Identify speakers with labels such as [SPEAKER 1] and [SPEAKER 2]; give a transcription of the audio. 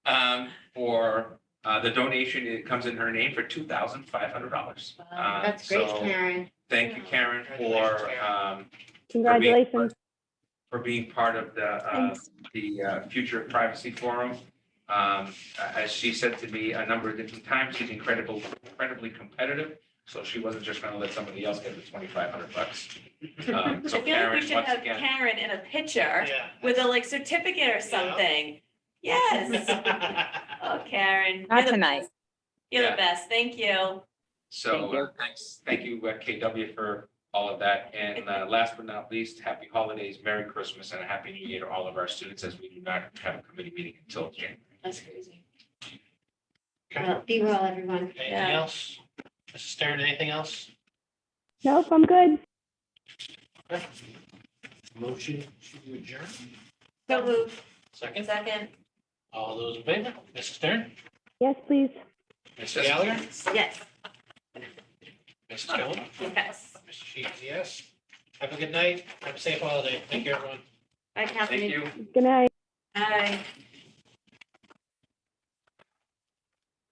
[SPEAKER 1] um, uh, the donation, it comes in her name for two thousand five hundred dollars. Um,
[SPEAKER 2] Wow,
[SPEAKER 3] That's great, Karen.
[SPEAKER 1] Thank you, Karen, for,
[SPEAKER 3] Congratulations,
[SPEAKER 1] um,
[SPEAKER 4] Congratulations.
[SPEAKER 1] for being part of the, uh, the uh, Future Privacy Forum. Um, As she said to me a number of different times, she's incredible, incredibly competitive. So she wasn't just going to let somebody else get the twenty-five hundred bucks. Um,
[SPEAKER 2] I
[SPEAKER 1] So
[SPEAKER 2] feel like we
[SPEAKER 1] Karen,
[SPEAKER 2] should
[SPEAKER 1] once
[SPEAKER 2] have
[SPEAKER 1] again,
[SPEAKER 2] Karen in a picture with a like certificate or something. Yes. Oh, Karen.
[SPEAKER 5] Not
[SPEAKER 2] you're the
[SPEAKER 5] tonight.
[SPEAKER 2] best. You're
[SPEAKER 1] Yeah.
[SPEAKER 2] the best. Thank you.
[SPEAKER 1] so
[SPEAKER 5] Thank you.
[SPEAKER 1] uh, thanks, thank you, uh, KW, for all of that. And uh, last but not least, happy holidays, Merry Christmas, and a Happy New Year to all of our students as we do not have a committee meeting until January.
[SPEAKER 2] That's crazy.
[SPEAKER 3] Well, Uh, Be well, everyone.
[SPEAKER 6] Anything
[SPEAKER 2] Yeah.
[SPEAKER 6] else? Mrs. Stern, anything else?
[SPEAKER 4] Nope, I'm good.
[SPEAKER 6] Okay. Motion to adjourn,
[SPEAKER 2] So move.
[SPEAKER 6] second.
[SPEAKER 2] Second.
[SPEAKER 6] All those in favor? Mrs. Stern?
[SPEAKER 4] Yes, please.
[SPEAKER 6] Mrs. Gallagher?
[SPEAKER 2] Yes.
[SPEAKER 6] Mrs. Stone?
[SPEAKER 2] Yes.
[SPEAKER 6] Mr. Sheets, yes. Have a good night. Have a safe holiday. Thank you, everyone.
[SPEAKER 3] Bye,
[SPEAKER 1] Thank
[SPEAKER 3] Catherine.
[SPEAKER 1] you.
[SPEAKER 4] Good night.
[SPEAKER 2] Aye.